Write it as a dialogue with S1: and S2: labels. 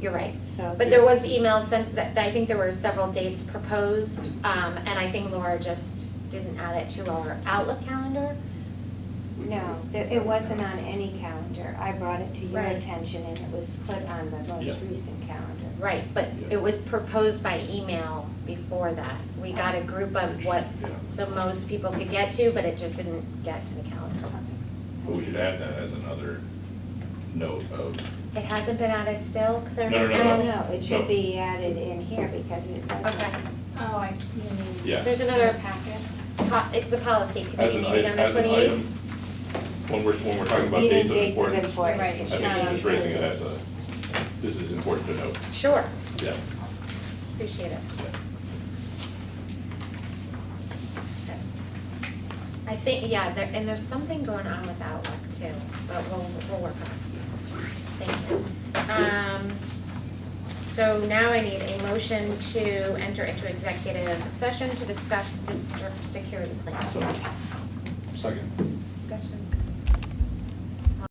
S1: You're right.
S2: So.
S1: But there was email sent, that, I think there were several dates proposed, um, and I think Laura just didn't add it to our Outlook calendar.
S2: No, there- it wasn't on any calendar. I brought it to your
S1: Right.
S2: attention and it was put on the
S3: Yeah.
S2: most recent calendar.
S1: Right, but
S3: Yeah.
S1: it was proposed by email before that. We got a group of what
S3: Yeah.
S1: the most people could get to, but it just didn't get to the calendar.
S3: But we should add that as another note of,
S1: It hasn't been added still, because I
S3: No, no,
S1: remember.
S2: No,
S3: no.
S2: no, it
S3: No.
S2: should be added in here because it
S1: Okay.
S2: wasn't.
S4: Oh, I see, you mean.
S3: Yeah.
S1: There's another
S4: packet.
S1: Po- It's the policy
S3: as
S1: committee
S3: an
S1: meeting on
S3: item,
S1: the
S3: as an item,
S1: 28th.
S3: when we're, when we're talking about
S2: Meeting
S3: dates of importance, I
S2: importance.
S4: Right,
S3: think
S4: it's
S3: she's
S4: not
S3: just raising it
S2: included.
S3: as a, this is important to note.
S1: Sure,
S3: Yeah.
S1: appreciate it. I think, yeah, there, and there's something going on with Outlook too, but we'll, we'll work on it. Thank you. Um, so now I need a motion to enter into executive session to discuss district security plan.
S3: So, Second.
S1: Discussion.